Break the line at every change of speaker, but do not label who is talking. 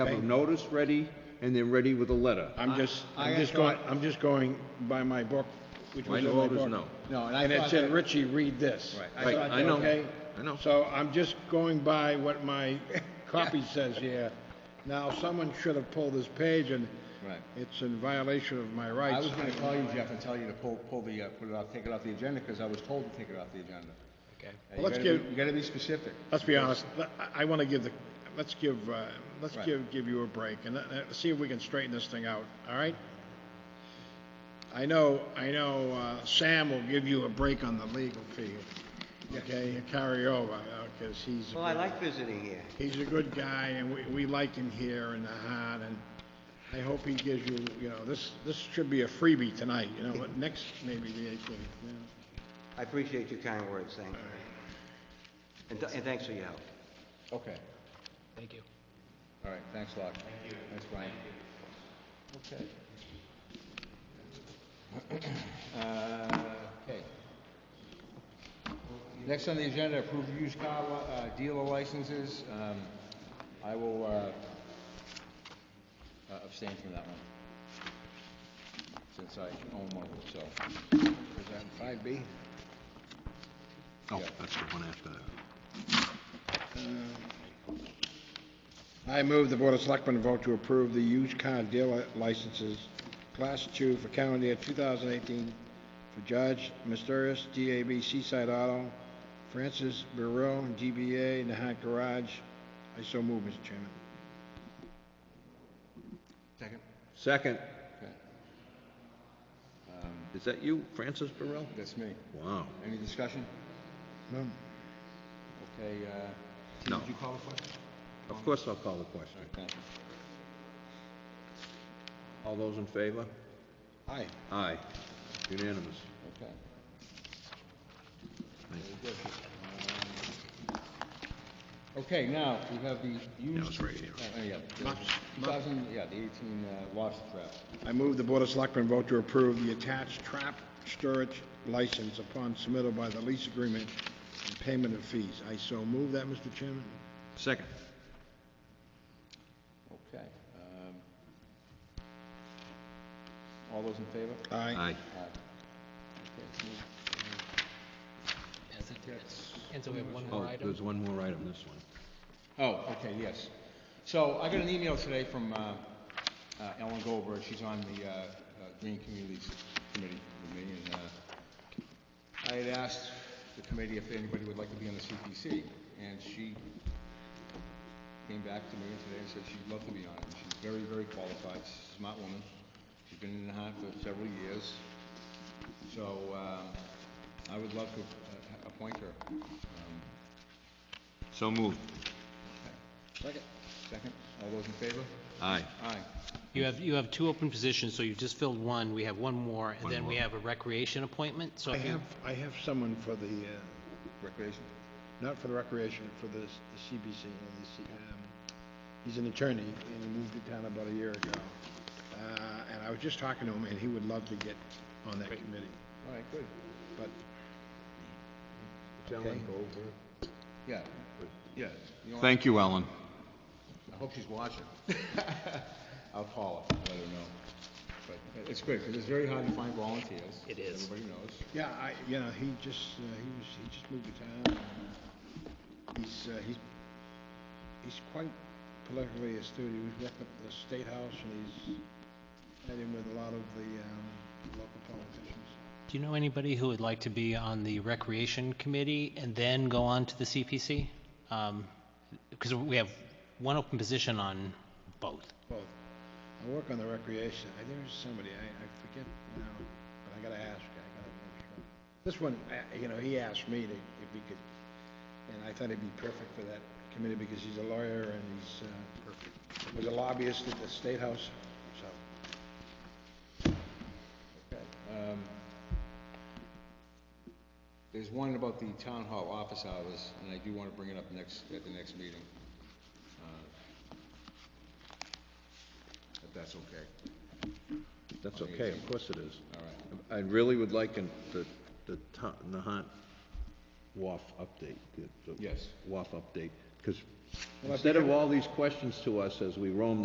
have a notice ready, and they're ready with a letter.
I'm just,
I
I'm
got
just going,
caught.
I'm just going by my book, which
My
was in my
note
book.
is no.
No, and I
And it
thought
said,
that-
Richie, read this.
Right.
Right,
thought,
I know.
okay?
I know.
So I'm just going by what my copy says here. Now, someone should have pulled this page, and
Right.
it's in violation of my
I
rights.
was gonna call you, Jeff, and tell you to pull, pull the, uh, put it off, take it off the agenda, because I was told to take it off the agenda.
Okay.
Uh, you
Let's
gotta be-
give-
You gotta be specific.
Let's be honest, let- I- I want to give the, let's give, uh, let's
Right.
give, give you a break, and let- let's see if we can straighten this thing out, all right? I know, I know uh, Sam will give you a break on the legal fee, okay, and carry over, because he's,
Well, I like visiting here.
he's a good guy, and we, we like him here in the heart, and I hope he gives you, you know, this, this should be a freebie tonight, you know, but next, maybe the 18th, you know.
I appreciate your kind words, thank you. And th- And thanks for your help.
Okay,
Thank you.
all right, thanks a lot. Thank you. Thanks, Brian. Okay. Uh, Okay. Next on the agenda, approve used car li- uh, dealer licenses. Um, I will uh, uh, abstain from that one, since I own one of them, so.
Is that 5B?
Oh, that's the one after that.
I move the Board of Selectmen vote to approve the used car dealer licenses, Class 2 for calendar year 2018 for Judge Mysterious, DAB Seaside Auto, Francis Burrell, DBA Nahat Garage. I so move, Mr. Chairman.
Second?
Second,
Okay,
is that you, Francis Burrell?
that's me.
Wow.
Any discussion?
No?
Okay, uh, T,
No.
did you call the question?
Of course I'll call the question.
All right, thank you.
All those in favor?
Aye.
Aye. Unanimous.
Okay.
Thank
Very good. Um, Okay, now, we have the used...
it's right here.
Oh, yeah, the
Lots-
2000, yeah, the 18 uh, lobster trap.
I move the Board of Selectmen vote to approve the attached trap storage license upon submittal by the lease agreement and payment of fees. I so move that, Mr. Chairman.
Second.
Okay. um, All those in favor?
Aye.
Aye. Okay, it's moved.
That's it. And so we have one more
Oh,
item.
there's one more item, this one.
Oh, okay, yes. So I got an email today from uh, uh, Ellen Goldberg, she's on the uh, uh, Green Communities Committee with me, and uh, I had asked the committee if anybody would like to be on the CPC, and she came back to me today and said she'd love to be on it. She's very, very qualified, She's a smart woman, she's been in the hunt for several years, so um, I would love to uh, appoint her. Um,
So moved.
Second. Second. All those in favor?
Aye.
Aye.
You have, you have two open positions, so you've just filled one. We have one more, and
One
then we
more.
have a recreation appointment, so
I
if you...
have, I have someone for the, uh,
Recreation?
not for the recreation, for the, the CBC, you know, the C- um, he's an attorney, and he moved to town about a year ago. Uh, and I was just talking to him, and he would love to get on that committee,
All right, good.
but
Ellen Goldberg. Yeah, yeah. You know what?
Thank you, Ellen.
I hope she's watching. I'll call her, let her know. But it's good, because it's very hard to find volunteers.
It is.
Everybody knows.
Yeah, I, you know, he just, uh, he was, he just moved to town. and He's, uh, he's, he's quite politically astute. He was working at the State House and he's met in with a lot of the, um, local politicians.
Do you know anybody who would like to be on the Recreation Committee and then go on to the CPC? Because Um, we have one open position on both.
Both. I work on the recreation. I, there's somebody, I, I forget now, but I gotta ask, I gotta make sure. This one, I- you know, he asked me to, if he could, and I thought he'd be perfect for that committee because he's a lawyer and he's, uh, perfect. was a lobbyist at the State House, so.
Okay. um, There's one about the town hall office hours, and I do want to bring it up next, at the next meeting. Uh, If that's okay.
That's okay, of course it is.
All right.
I really would like an- the, the Ta- Nahant WAF update. the- the
Yes.
WAF update, because
Well, if you
Instead of all these questions to us as we roam